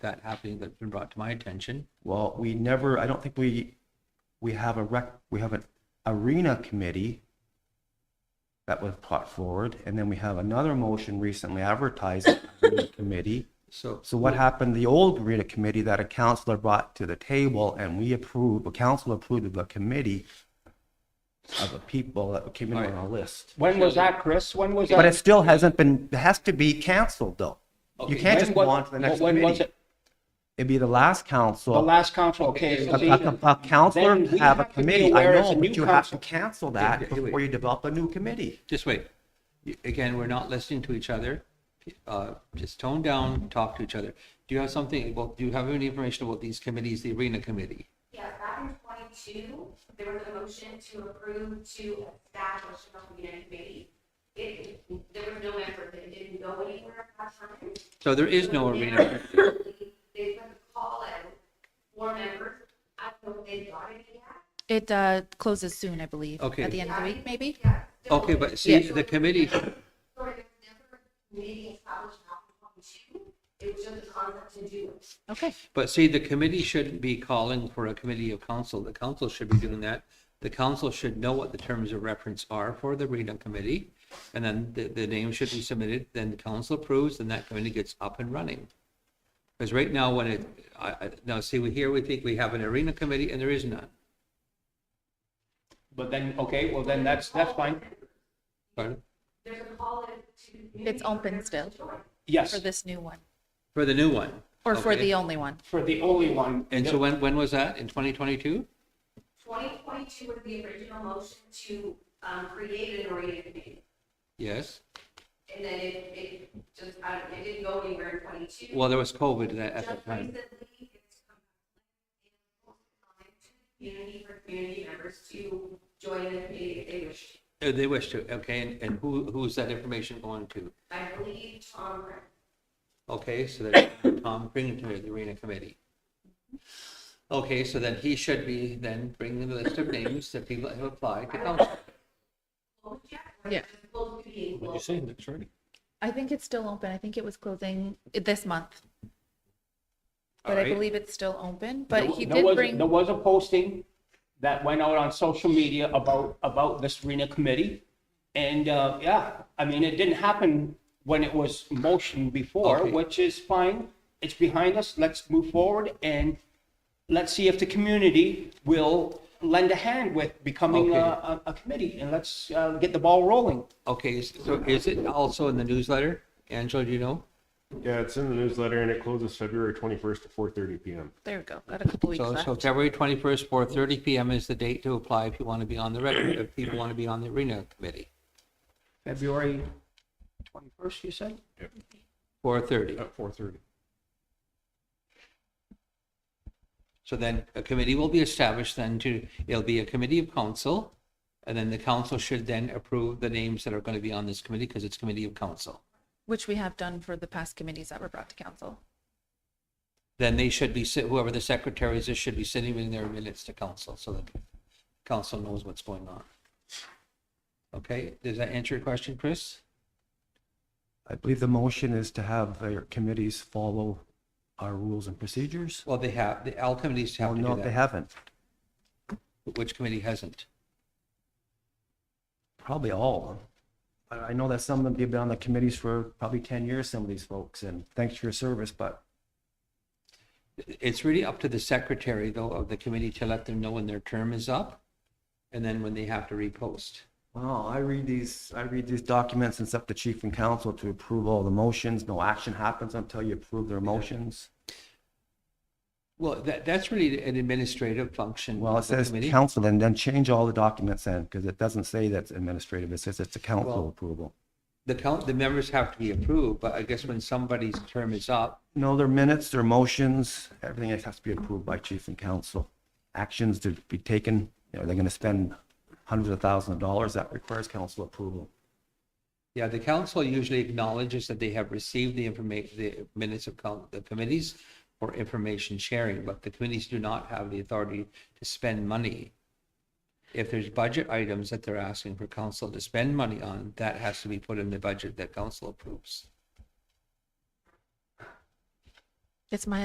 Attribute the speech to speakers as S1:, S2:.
S1: that happening that's been brought to my attention.
S2: Well, we never, I don't think we, we have a rec, we have an arena committee that was brought forward, and then we have another motion recently advertised arena committee.
S1: So,
S2: So what happened, the old arena committee that a counselor brought to the table and we approved, a council approved of a committee of the people that came in on a list.
S3: When was that, Chris? When was that?
S2: But it still hasn't been, it has to be canceled though.
S1: Okay,
S2: You can't
S3: When
S2: just
S3: was-
S2: go on to the next
S3: When was
S2: committee.
S3: it?
S2: It'd be the last council.
S3: The last council, okay.
S2: A-
S3: so
S2: A
S3: see,
S2: a counselor
S3: then we
S2: have a
S3: have to be
S2: committee, I
S3: aware it's
S2: know,
S3: a
S2: but
S3: new
S2: you have to cancel
S3: council.
S2: that
S1: Wait, wait,
S2: before you develop a new committee.
S1: just wait. You- Again, we're not listening to each other. Uh, Just tone down, talk to each other. Do you have something, about do you have any information about these committees, the arena committee?
S4: Yeah, back in twenty-two, there was a motion to approve to establish an arena committee. It, there was no effort, it didn't go anywhere at that time.
S1: So there is no arena.
S4: They put a call out for members, I don't know if they got any yet.
S5: It uh, closes soon, I believe.
S1: Okay.
S5: At the end of the week, maybe?
S4: Yeah, so-
S1: Okay, but see,
S5: Yeah.
S1: the committee,
S4: Sorry, there was never a committee established back in twenty-two, it was just a concept to do it.
S5: Okay.
S1: but see, the committee shouldn't be calling for a committee of council. The council should be doing that. The council should know what the terms of reference are for the arena committee. And then the, the name should be submitted, then the council approves, and that committee gets up and running. Because right now, when it, I, I, now see, we here, we think we have an arena committee, and there is none.
S3: But then, okay, well then that's, that's fine.
S1: Pardon?
S4: There's a call out to.
S5: It's open still for
S3: Yes,
S5: this new one,
S1: For the new one.
S5: or for
S1: Okay.
S5: the only one.
S3: for the only one.
S1: And so when, when was that? In 2022?
S4: Twenty twenty-two was the original motion to, um, create an arena committee.
S1: Yes.
S4: And then it, it just, I don't, it didn't go anywhere in twenty-two.
S1: Well, there was COVID that- at
S4: Just
S1: that time.
S4: recently, it's come back in community for community members to join the committee if they wish.
S1: Uh, They wish to, okay, and, and who, who's that information going to?
S4: I believe Tom, Rick-
S1: Okay, so there's Tom bringing to the arena committee. Okay, so then he should be then bringing the list of names that people have applied to council.
S4: oh, Jack,
S5: Yeah.
S4: both being, well,
S5: I think it's still open. I think it was closing this month. But I
S1: Alright.
S5: believe it's still open, but
S3: There-
S5: he
S3: there
S5: did
S3: was-
S5: bring,
S3: There was a posting that went out on social media about, about this arena committee. And, uh, yeah, I mean, it didn't happen when it was motioned before,
S1: Okay.
S3: which is fine. It's behind us. Let's move forward and let's see if the community will lend a hand with becoming a,
S1: Okay.
S3: a- a committee and let's, uh, get the ball rolling.
S1: Okay, so is it also in the newsletter? Angela, do you know?
S6: Yeah, it's in the newsletter and it closes February 21st at 4:30 PM.
S5: there we go, got a couple weeks
S1: So,
S5: left.
S1: so February 21st, 4:30 PM is the date to apply if you want to be on the, rec- if people want to be on the arena committee,
S3: February twenty-first, you said?
S1: 4:30.
S6: At 4:30.
S1: So then a committee will be established then to, it'll be a committee of council. And then the council should then approve the names that are going to be on this committee because it's committee of council.
S5: Which we have done for the past committees that were brought to council.
S1: Then they should be, sit- whoever the secretary is, should be sitting in their minutes to council so that council knows what's going on. Okay, does that answer your question, Chris?
S2: I believe the motion is to have their committees follow our rules and procedures.
S1: Well, they have, the all committees
S2: Well,
S1: have to
S2: no,
S1: do
S2: they
S1: that.
S2: haven't.
S1: Which committee hasn't?
S2: Probably all of them. I I know that some of them have been on the committees for probably 10 years, some of these folks, and thanks for your service, but
S1: It's really up to the secretary though of the committee to let them know when their term is up and then when they have to repost.
S2: Wow, I read these, I read these documents and it's up to chief and council to approve all the motions. No action happens until you approve their motions.
S1: Well, that, that's really an administrative function.
S2: Well, it
S1: of the
S2: says
S1: committee.
S2: council and then change all the documents in because it doesn't say that's administrative. It says it's a
S1: Well-
S2: council approval.
S1: The count, the members have to be approved, but I guess when somebody's term is up,
S2: No, their minutes, their motions, everything has to be approved by chief and council. Actions to be taken, you know, they're going to spend hundreds of thousands of dollars. That requires council approval.
S1: yeah, the council usually acknowledges that they have received the information, the minutes of coun- the committees for information sharing, but the committees do not have the authority to spend money. If there's budget items that they're asking for council to spend money on, that has to be put in the budget that council approves.
S5: It's my